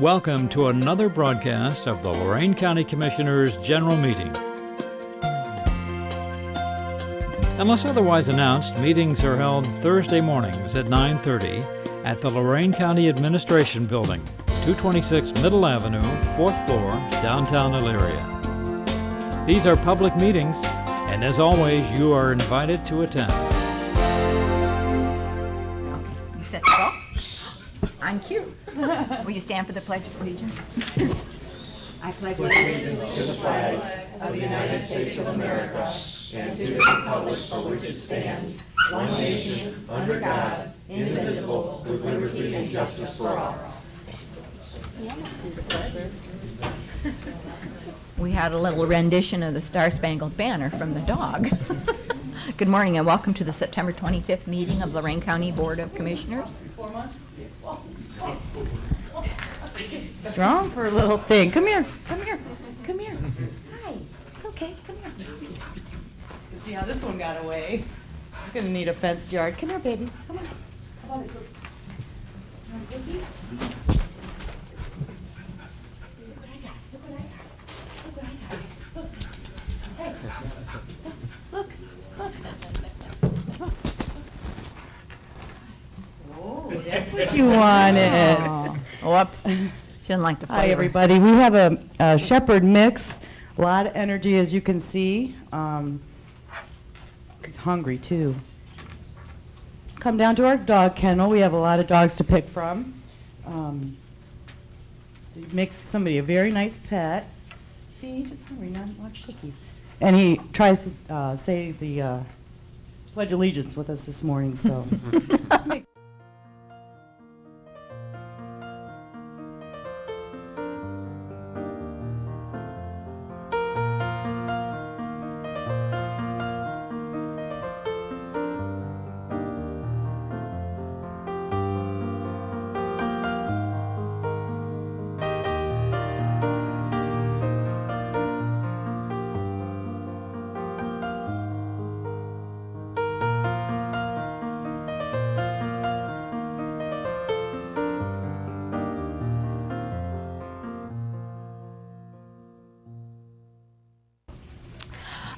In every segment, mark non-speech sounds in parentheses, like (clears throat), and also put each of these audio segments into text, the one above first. Welcome to another broadcast of the Lorraine County Commissioners' General Meeting. Unless otherwise announced, meetings are held Thursday mornings at 9:30 at the Lorraine County Administration Building, 226 Middle Avenue, 4th floor, downtown Elyria. These are public meetings, and as always, you are invited to attend. You set the ball. I'm cute. Will you stand for the Pledge of Allegiance? I pledge allegiance to the flag of the United States of America and to the republic for which it stands, one nation, under God, indivisible, with liberty and justice for all. We had a little rendition of the Star Spangled Banner from the dog. (laughs) Good morning and welcome to the September 25th meeting of Lorraine County Board of Commissioners. Strong for a little thing. Come here, come here, come here. Hi, it's okay, come here. See how this one got away? It's gonna need a fenced yard. Come here, baby, come on. Come on, baby. Come on, baby. Look what I got. Look what I got. Look what I got. Look. Hey. Look, look, look. Oh, that's what you wanted. Whoops. She didn't like the flavor. Hi, everybody. We have a- a Shepherd mix, a lot of energy, as you can see. Um, He's hungry, too. Come down to our dog kennel. We have a lot of dogs to pick from. Um, they Make somebody a very nice pet. See, he's just hungry, not much cookies. And he tries to uh, say the uh, Pledge Allegiance with us this morning, so.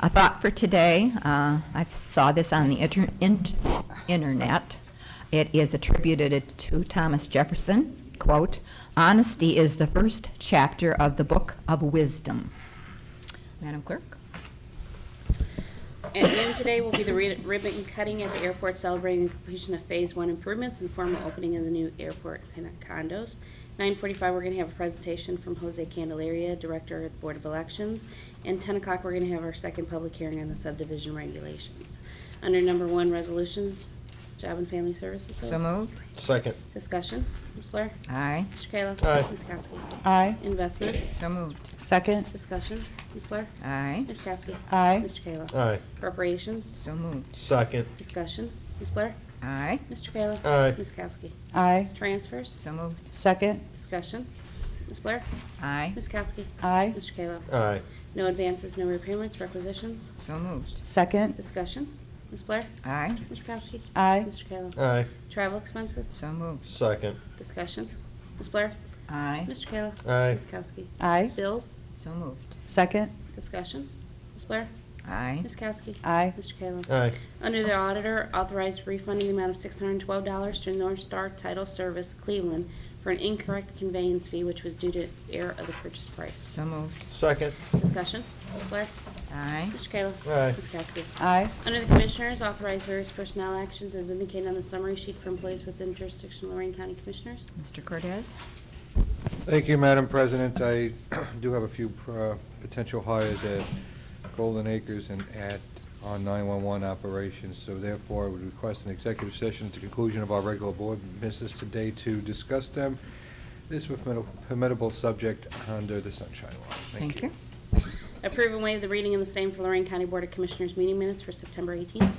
A thought for today, uh, I saw this on the inter- int- internet. It is attributed to Thomas Jefferson, quote, "Honesty is the first chapter of the book of wisdom." Madam Clerk? At noon today will be the ri- ribbon cutting at the airport celebrating completion of Phase One improvements and formal opening of the new airport con- condos. Nine forty-five, we're gonna have a presentation from Jose Candelaria, Director at the Board of Elections. And ten o'clock, we're gonna have our second public hearing on the subdivision regulations. Under number one, resolutions, Job and Family Services bills. So moved. Second. Discussion, Ms. Blair? Aye. Mr. Kayla? Aye. Ms. Kowski? (laughs) Aye. Investments, So moved. Second. discussion, Ms. Blair? Aye. Ms. Kowski? Aye. Mr. Kayla? Aye. Appropriations, So moved. Second. discussion, Ms. Blair? Aye. Mr. Kayla? Aye. Ms. Kowski? Aye. Transfers? So moved. Second. Discussion? Ms. Blair? Aye. Ms. Kowski? Aye. Mr. Kayla? Aye. No advances, no repayments, requisitions? So moved. Second. Discussion? Ms. Blair? Aye. Ms. Kowski? Aye. Mr. Kayla? Aye. Travel expenses? So moved. Second. Discussion? Ms. Blair? Aye. Mr. Kayla? Aye. Ms. Kowski? Aye. Bills? So moved. Second. Discussion? Ms. Blair? Aye. Ms. Kowski? Aye. Mr. Kayla? Aye. Under the auditor, authorized refunding the amount of $612 to North Star Title Service Cleveland for an incorrect conveyance fee which was due to error of the purchase price. So moved. Second. Discussion, Ms. Blair? Aye. Mr. Kayla? Aye. Ms. Kowski? Aye. Under the Commissioners, authorize various personnel actions as indicated on the summary sheet for employees within jurisdiction of Lorraine County Commissioners. Mr. Cortez? Thank you, Madam President. I (clears throat) do have a few uh, potential hires at Golden Acres and at our 911 operations, so therefore I would request an executive session at the conclusion of our regular board business today to discuss them. This is a formidable- formidable subject under the Sunshine Law. Thank you. Approve and waive the reading and the same for Lorraine County Board of Commissioners meeting minutes for September 18th.